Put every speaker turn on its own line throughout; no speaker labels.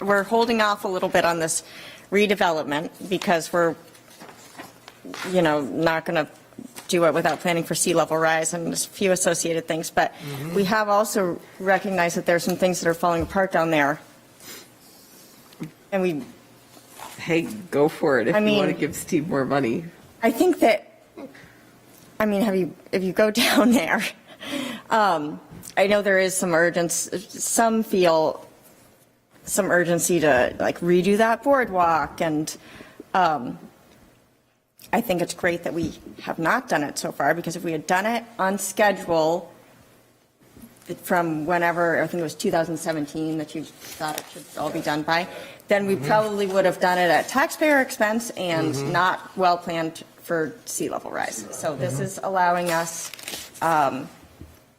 we're holding off a little bit on this redevelopment because we're, you know, not going to do it without planning for sea level rise and there's a few associated things. But we have also recognized that there's some things that are falling apart down there. And we,
Hey, go for it if
I
you want to
mean-
give Steve more money.
I think that, I mean, have you, if you go down there, um, I know there is some urgency, some feel some urgency to like redo that boardwalk and, um, I think it's great that we have not done it so far because if we had done it on schedule from whenever, I think it was 2017 that you thought it should all be done by, then
Mm-hmm.
we probably would have done it at taxpayer expense and not well planned for sea level rise. So
Mm-hmm.
this is allowing us um,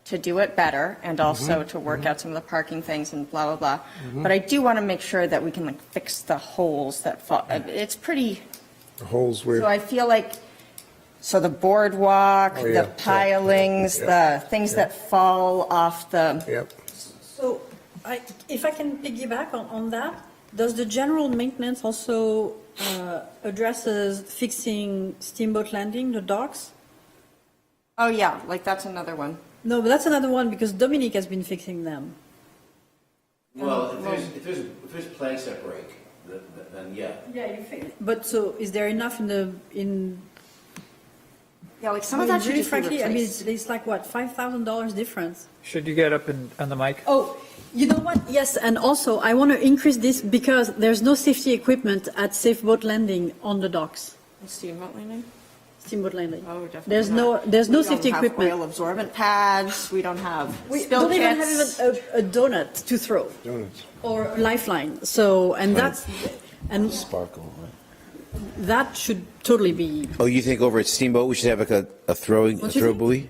to do it better and
Mm-hmm.
also to work out some of the parking things and blah, blah, blah. But I do want to make sure that we can like fix the holes that fall. uh, It's pretty,
The holes
so
where,
I feel like, so the boardwalk,
Oh, yeah.
the pilings,
Yeah.
the things that fall off the.
yep.
So I, if I can piggyback on, on that, does the general maintenance also uh, addresses fixing Steamboat Landing, the docks?
Oh, yeah, like that's another one.
No, but that's another one because Dominique has been fixing them.
Well, if there's, if there's, if there's planks that break, th- th- then yeah.
Yeah, you fix. But so is there enough in the, in,
Yeah, like
I
some of
mean,
that should
really
just be
frankly, I mean,
replaced.
it's, it's like what, $5,000 difference?
Should you get up and, on the mic?
Oh, you know what? Yes, and also I want to increase this because there's no safety equipment at Safe Boat Landing on the docks,
Steamboat landing?
Steamboat Landing.
Oh, definitely
There's no,
not.
there's no
We don't
safety
have
equipment.
Oil absorbent pads, we don't have uh,
We
spill
don't even
kits.
have even a, a donut to throw
Donuts.
or a lifeline. So, and that's, and
Sparkle, right?
that should totally be,
Oh, you think over at Steamboat, we should have like a, a throwing, a
Don't you
throw
think?
buoy?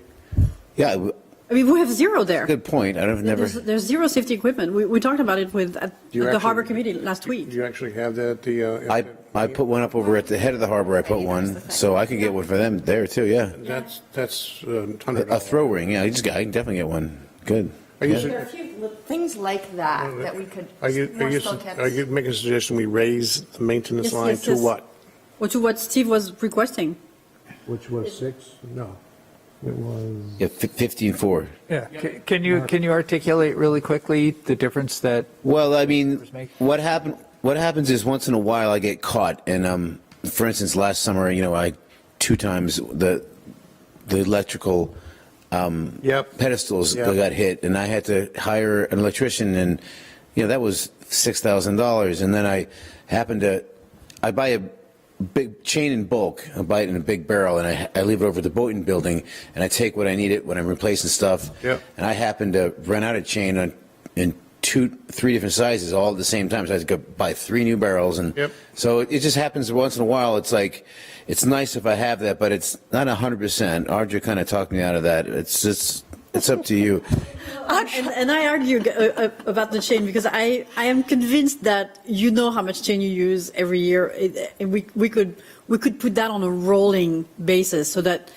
Yeah, w-
I mean, we have zero there.
good point. I've never,
There's, there's zero safety equipment. We, we talked about it with at
Do you
the harbor
actually-
committee last
Do
week.
you actually have that, at the? uh,
I, I put one up over at the head of the harbor. I put
the
one,
thing.
so I could get one for them there too, yeah.
That's, that's uh, hundred.
A throw ring, yeah, I just got, I can definitely get one. Good.
I
Yeah.
use it-
There are a few li- things like that that we could,
Are you, are
more
you,
spill
are
kits.
you making a suggestion we raise the maintenance
Yes,
line
yes,
to
yes.
what?
Or to what Steve was requesting.
Which was six? No, it was.
Yeah, fif- fifteen four.
Yeah. C- Can you, can you articulate really quickly the difference that,
Well, I mean,
make-
what happen, what happens is once in a while I get caught and, um, for instance, last summer, you know, I, two times the, the electrical,
Yep.
pedestals
Yeah.
that got hit, and I had to hire an electrician, and you know that was six thousand dollars. And then I happened to, I buy a big chain in bulk, I buy it in a big barrel, and I, I leave it over at the Boynton Building, and I take what I need it when I'm replacing stuff.
Yep.
And I happened to run out of chain on in two, three different sizes all at the same time, so I had to go buy three new barrels, and
Yep.
so it, it just happens once in a while. It's like, it's nice if I have that, but it's not hundred percent. Audra kind of talked me out of that. It's just, it's up to you.
And, and I argue uh, uh, about the chain because I, I am convinced that you know how much chain you use every year. It- And we, we could, we could put that on a rolling basis so that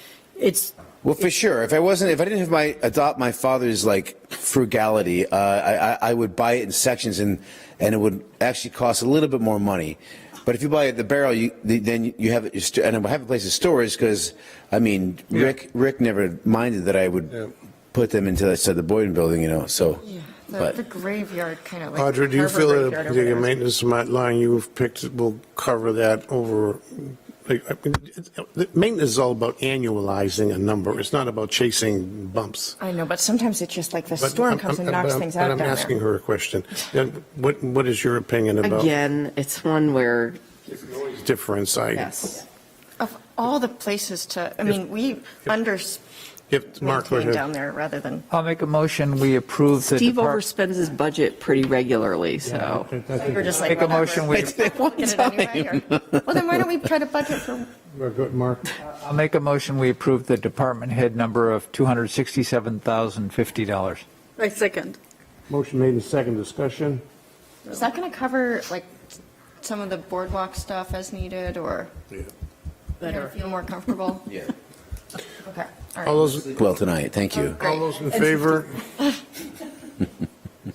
it's
Well, for sure. If I wasn't, if I didn't have my adopt my father's like frugality, uh, I, I, I would buy it in sections, and and it would actually cost a little bit more money. But if you buy it the barrel, you the, then you have it, you st- and I have a place of storage because I mean, Rick Rick never minded that I would
Yeah.
put them into I said the Boyden Building, you know. So,
The the graveyard kind of like.
Audra, do you
harbor
feel
graveyard
that
or
the
whatever.
maintenance mi- line you've picked will cover that over? like, I mean, it- it- Maintenance is all about annualizing a number. It's not about chasing bumps.
I know, but sometimes it's just like the
But
storm
I'm-
comes and
I'm-
knocks
I'm-
things
but
out down
I'm asking
there.
her a question. Then What, what is your opinion about
Again, it's one where,
difference? I-
yes.
Of all the places to, I mean, we under
If, Mark, go
maintain down
ahead.
there rather than.
I'll make a motion, we approve the.
Steve
depart-
overspends his budget pretty regularly, so.
We're just like,
Make a motion, we,
Get it anyway, or- Well, then why don't we try to budget for,
Good, Mark.
I'll make a motion, we approve the department head number of $267,050.
a second.
Motion made in second discussion.
is that going to cover like some of the boardwalk stuff as needed or you know, feel more comfortable?
yeah.
Okay, all
All
right.
those,
Well, tonight, thank you.
Great.
all those in favor?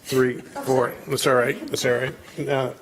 three, four, that's all right, that's all right. Uh,